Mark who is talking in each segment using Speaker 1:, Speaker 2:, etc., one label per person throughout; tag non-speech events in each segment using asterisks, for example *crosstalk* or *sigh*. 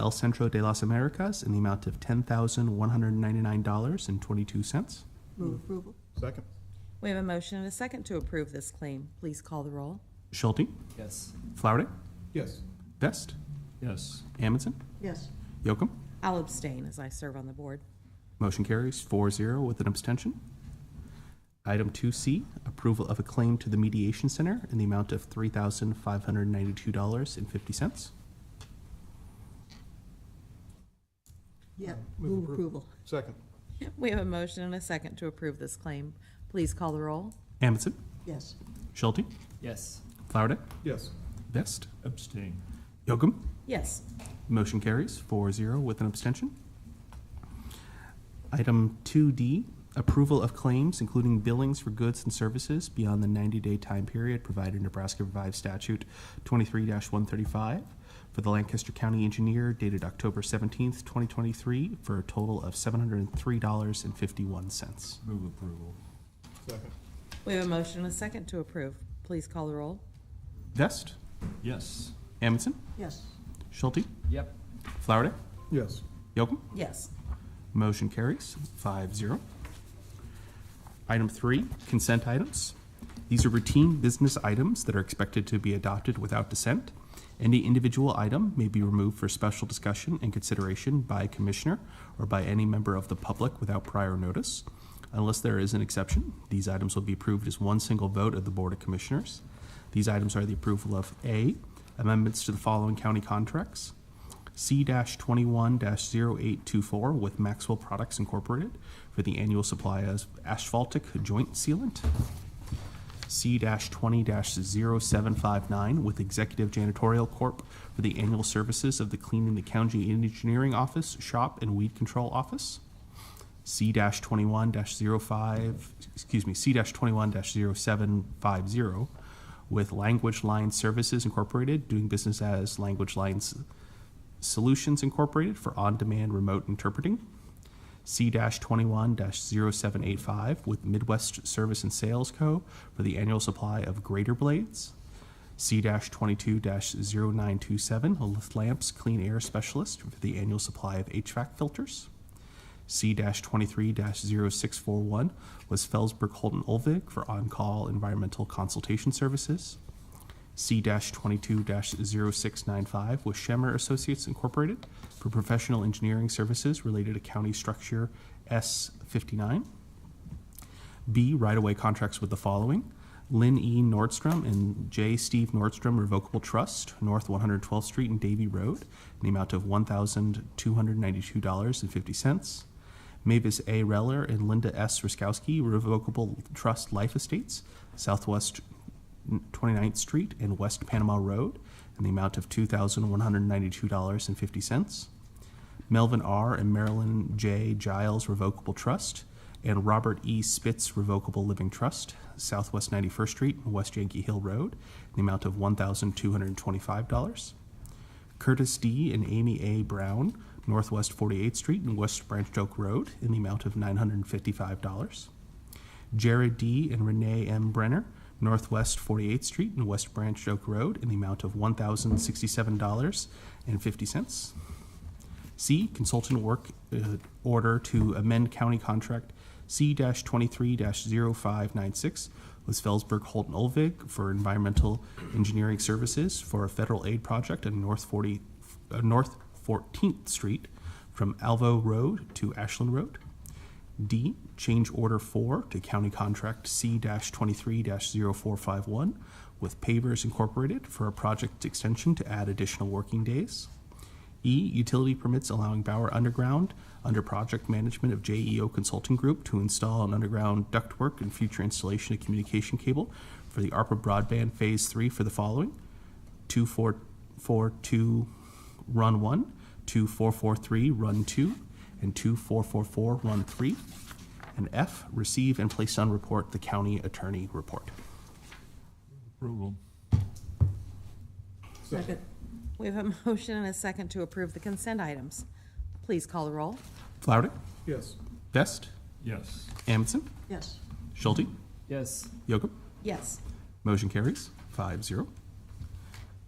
Speaker 1: El Centro de las Americas in the amount of $10,199.22.
Speaker 2: Move approval.
Speaker 3: Second?
Speaker 4: We have a motion and a second to approve this claim.
Speaker 2: Please call the roll.
Speaker 1: Schulte,
Speaker 5: Yes.
Speaker 1: Flowerday,
Speaker 3: Yes.
Speaker 1: Best,
Speaker 5: Yes.
Speaker 1: Amundson,
Speaker 2: Yes.
Speaker 1: Yocum.
Speaker 4: I'll abstain as I serve on the board.
Speaker 1: Motion carries 4-0 with an abstention. Item two C, approval of a claim to the Mediation Center in the amount of three thousand five hundred ninety-two dollars and fifty cents.
Speaker 2: Yep.
Speaker 3: Move
Speaker 2: Move
Speaker 3: appro-
Speaker 2: approval.
Speaker 3: Second?
Speaker 4: We have a motion and a second to approve this claim. Please call the roll.
Speaker 1: Amundson,
Speaker 2: Yes.
Speaker 1: Schulte,
Speaker 5: Yes.
Speaker 1: Flowerday,
Speaker 3: Yes.
Speaker 1: Best,
Speaker 5: Abstain.
Speaker 1: Yocum.
Speaker 4: Yes.
Speaker 1: Motion carries 4-0 with an abstention. Item two D, approval of claims including billings for goods and services beyond the ninety-day time period provided in Nebraska Revised Statute twenty-three one thirty-five for the Lancaster County Engineer dated October seventeenth, twenty twenty-three, for a total of seven hundred and three dollars and fifty-one cents.
Speaker 5: Move approval.
Speaker 3: Second?
Speaker 4: We have a motion and a second to approve. Please call the roll.
Speaker 1: Vest,
Speaker 5: Yes.
Speaker 1: Amundson,
Speaker 2: Yes.
Speaker 1: Schulte,
Speaker 5: Yep.
Speaker 1: Flowerday,
Speaker 3: Yes.
Speaker 1: Yocum.
Speaker 4: Yes.
Speaker 1: Motion carries 5-0. Item three, consent items. These are routine business items that are expected to be adopted without dissent. Any individual item may be removed for special discussion and consideration by a commissioner or by any member of the public without prior notice. Unless there is an exception, these items will be approved as one single vote of the Board of Commissioners. These items are the approval of A, amendments to the following county contracts, C-21-0824 with Maxwell Products Incorporated for the annual supply of asphaltic joint sealant. C-20-0759 with Executive Janitorial Corp. for the annual services of the Cleaning the County Engineering Office, Shop, and Weed Control Office. C-21-05, excuse me, C-21-0750 with Language Line Services Incorporated, doing business as Language Lines Solutions Incorporated for on-demand remote interpreting. C-21-0785 with Midwest Service and Sales Co. for the annual supply of grater blades. C-22-0927 a Lift Lamps Clean Air Specialist for the annual supply of HVAC filters. C-23-0641 was Felsberg Holton Olvig for on-call environmental consultation services. C-22-0695 with Shemer Associates Incorporated for professional engineering services related to county structure S-59. B, right-of-way contracts with the following. Lynn E. Nordstrom and J. Steve Nordstrom Revocable Trust, North 112th Street and Davie Road, in the amount of $1,292.50. Mavis A. Reller and Linda S. Ruskowski Revocable Trust Life Estates, Southwest 29th Street and West Panama Road, in the amount of $2,192.50. Melvin R. and Marilyn J. Giles Revocable Trust, and Robert E. Spitz Revocable Living Trust, Southwest 91st Street and West Yankee Hill Road, in the amount of $1,225. Curtis D. and Amy A. Brown, Northwest 48th Street and West Branch Oak Road, in the amount of $955. Jared D. and Renee M. Brenner, Northwest 48th Street and West Branch Oak Road, in the amount of $1,067.50. C, consultant work uh, order to amend county contract C-23-0596 with Felsberg Holton Olvig for environmental engineering services for a federal aid project on North 40, uh, North 14th Street from Alvo Road to Ashland Road. D, change order four to county contract C-23-0451 with Pavers Incorporated for a project extension to add additional working days. E, utility permits allowing Bauer Underground under project management of JEO Consulting Group to install an underground ductwork and future installation of communication cable for the ARPA broadband Phase Three for the following: two four four two, run one, two four four three, run two, and two four four four, run three. And F, receive and place on report the county attorney report.
Speaker 5: Approval.
Speaker 2: Second.
Speaker 4: We have a *laughs* motion and a second to approve the consent items. Please call the roll.
Speaker 1: Flowerday,
Speaker 3: Yes.
Speaker 1: Best,
Speaker 5: Yes.
Speaker 1: Amundson,
Speaker 2: Yes.
Speaker 1: Schulte,
Speaker 5: Yes.
Speaker 1: Yocum.
Speaker 4: Yes.
Speaker 1: Motion carries 5-0.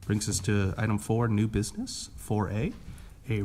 Speaker 1: Brings us to item four, new business, four A,